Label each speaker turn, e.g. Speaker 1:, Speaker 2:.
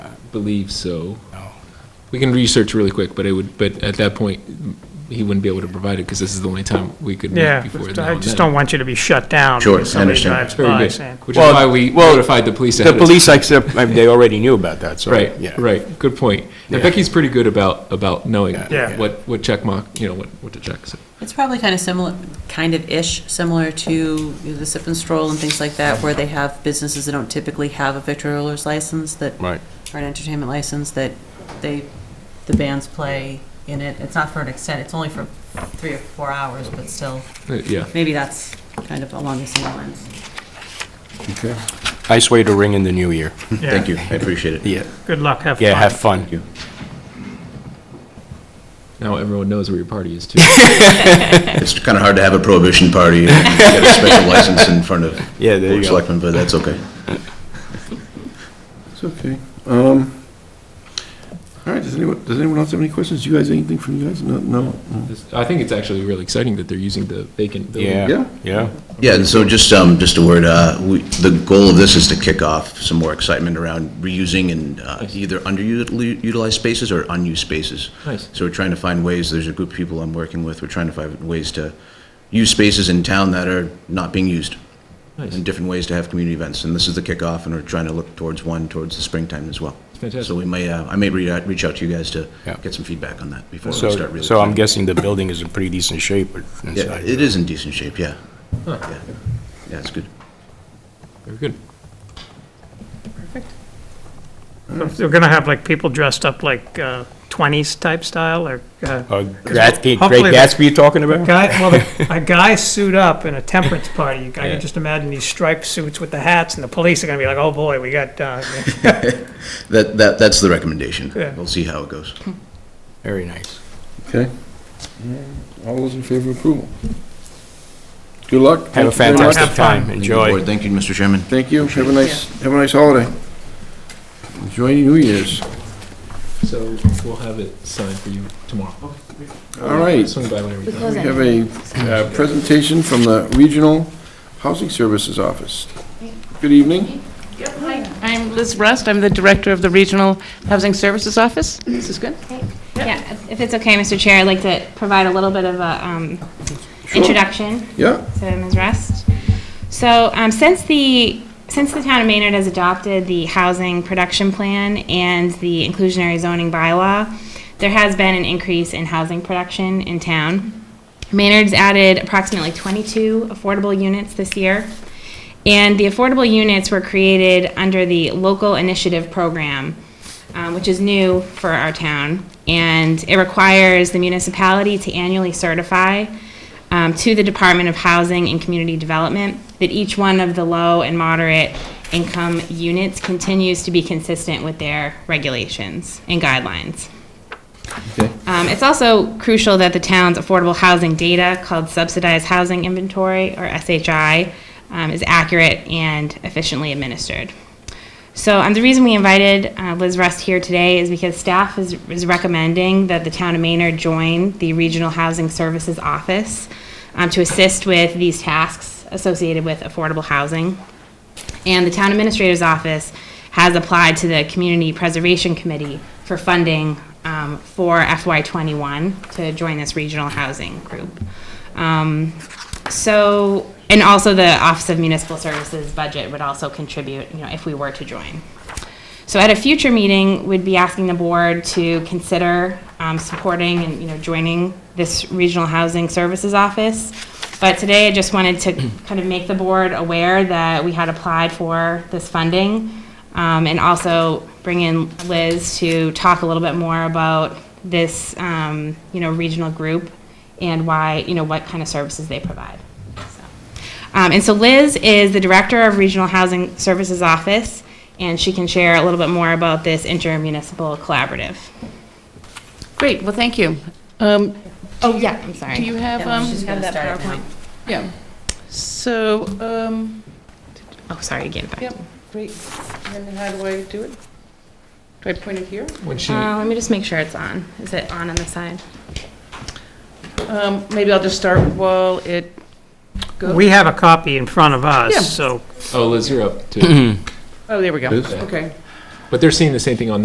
Speaker 1: believe so.
Speaker 2: Oh.
Speaker 1: We can research really quick, but it would, but at that point, he wouldn't be able to provide it because this is the only time we could meet
Speaker 2: Yeah,
Speaker 1: before now
Speaker 2: I
Speaker 1: and
Speaker 2: just
Speaker 1: then.
Speaker 2: don't want you to be shut down.
Speaker 3: Sure,
Speaker 2: because somebody
Speaker 3: I understand.
Speaker 2: drives by
Speaker 1: Very good,
Speaker 2: saying-
Speaker 1: which is
Speaker 4: Well,
Speaker 1: why we
Speaker 4: well,
Speaker 1: notified the police
Speaker 4: The
Speaker 1: ahead of
Speaker 4: police, accept- I mean, they already knew about that, so.
Speaker 1: Right,
Speaker 4: yeah.
Speaker 1: right, good point. And
Speaker 4: Yeah.
Speaker 1: Becky's pretty good about, about knowing
Speaker 4: Yeah.
Speaker 2: Yeah.
Speaker 1: what, what check mark, you know, what, what to check, so.
Speaker 5: It's probably kind of similar, kind of ish, similar to you know, the sip and stroll and things like that, where they have businesses that don't typically have a victualler's license that,
Speaker 4: Right.
Speaker 5: or an entertainment license that they, the bands play in it. It's not for an extent, it's only for three or four hours, but still,
Speaker 1: Uh, Yeah,
Speaker 5: maybe that's kind of along the same lines.
Speaker 4: Nice way to ring in the new year.
Speaker 3: Thank
Speaker 2: Yeah,
Speaker 3: you, I appreciate it.
Speaker 4: Yeah,
Speaker 2: Good luck, have fun.
Speaker 4: yeah, have fun.
Speaker 1: now everyone knows where your party is too.
Speaker 3: It's kind of hard to have a prohibition party and get a special license in front of
Speaker 4: Yeah, there
Speaker 3: Board
Speaker 4: you
Speaker 3: of
Speaker 4: go.
Speaker 3: Selectmen, but that's okay.
Speaker 6: It's okay. Um, All right, does anyone, does anyone else have any questions? You guys, anything from you guys? No, no?
Speaker 1: This- I think it's actually really exciting that they're using the vacant building.
Speaker 4: Yeah,
Speaker 6: Yeah.
Speaker 4: yeah.
Speaker 3: Yeah, and so just, um, just a word, uh, we, the goal of this is to kick off some more excitement around reusing and, uh, either underutilized spaces or unused spaces.
Speaker 1: Nice.
Speaker 3: So we're trying to find ways, there's a group of people I'm working with, we're trying to find ways to use spaces in town that are not being used.
Speaker 1: Nice.
Speaker 3: And different ways to have community events, and this is the kickoff, and we're trying to look towards one, towards the springtime as well.
Speaker 1: Fantastic.
Speaker 3: So we may, uh, I may reach out, reach out to you guys to
Speaker 4: Yeah.
Speaker 3: get some feedback on that before we start
Speaker 4: So,
Speaker 3: really.
Speaker 4: so I'm guessing the building is in pretty decent shape or
Speaker 3: Yeah,
Speaker 4: inside.
Speaker 3: it is in decent shape, yeah. Yeah, Yeah, it's good.
Speaker 1: Very good.
Speaker 2: So They're gonna have like people dressed up like uh, twenties type style or, uh,
Speaker 4: Uh, Gatsby, Great
Speaker 2: Hopefully the-
Speaker 4: Gatsby you're talking about?
Speaker 2: guy, well, the- a guy suit up in a temperance party. I can just imagine these striped suits with the hats and the police are gonna be like, oh boy, we got, uh,
Speaker 3: That, that, that's the recommendation.
Speaker 2: Yeah.
Speaker 3: We'll see how it goes.
Speaker 4: Very nice.
Speaker 6: Okay. All those in favor of approval? Good luck.
Speaker 4: Have a
Speaker 6: Thank you very much.
Speaker 4: fantastic time,
Speaker 3: Thank you, board.
Speaker 4: enjoy.
Speaker 3: Thank you, Mr. Chairman.
Speaker 6: Thank you. Have a nice, have a nice holiday. Enjoy New Year's.
Speaker 1: So we'll have it signed for you tomorrow.
Speaker 6: All right.
Speaker 1: Swing by whenever you
Speaker 6: We have a uh, presentation from the Regional Housing Services Office. Good evening.
Speaker 7: I'm Liz Rust, I'm the Director of the Regional Housing Services Office. This is good.
Speaker 8: Yeah, if it's okay, Mr. Chair, I'd like to provide a little bit of a um, introduction
Speaker 6: Yeah,
Speaker 8: to Ms. Rust. So um, since the, since the town of Maynard has adopted the housing production plan and the inclusionary zoning bylaw, there has been an increase in housing production in town. Maynard's added approximately 22 affordable units this year. And the affordable units were created under the local initiative program, um, which is new for our town. And it requires the municipality to annually certify um, to the Department of Housing and Community Development that each one of the low and moderate income units continues to be consistent with their regulations and guidelines. Um, it's also crucial that the town's affordable housing data, called subsidized housing inventory, or SHI, um, is accurate and efficiently administered. So um, the reason we invited uh, Liz Rust here today is because staff is, is recommending that the town of Maynard join the Regional Housing Services Office um, to assist with these tasks associated with affordable housing. And the town administrator's office has applied to the Community Preservation Committee for funding um, for FY21 to join this regional housing group. Um, So, and also the Office of Municipal Services budget would also contribute, you know, if we were to join. So at a future meeting, we'd be asking the board to consider um, supporting and, you know, joining this Regional Housing Services Office. But today, I just wanted to kind of make the board aware that we had applied for this funding um, and also bring in Liz to talk a little bit more about this, um, you know, regional group and why, you know, what kind of services they provide. So. Um, and so Liz is the director of Regional Housing Services Office, and she can share a little bit more about this intermunicipal collaborative.
Speaker 7: Great, well, thank you. Um,
Speaker 8: Oh, yeah, I'm sorry.
Speaker 7: Do you have,
Speaker 5: Yeah,
Speaker 7: um,
Speaker 5: she's gonna start it now.
Speaker 7: yeah. So, um,
Speaker 8: Oh, sorry, again. back.
Speaker 7: yep, great. And then how do I do it? Do I point it here?
Speaker 1: When she,
Speaker 8: Uh, let me just make sure it's on. Is it on on the side?
Speaker 7: Um, maybe I'll just start while it goes.
Speaker 2: we have a copy in front of
Speaker 7: Yeah.
Speaker 2: us, so
Speaker 1: oh, Liz, you're up too.
Speaker 7: Oh, there we go,
Speaker 6: Liz?
Speaker 7: okay.
Speaker 1: But they're seeing the same thing on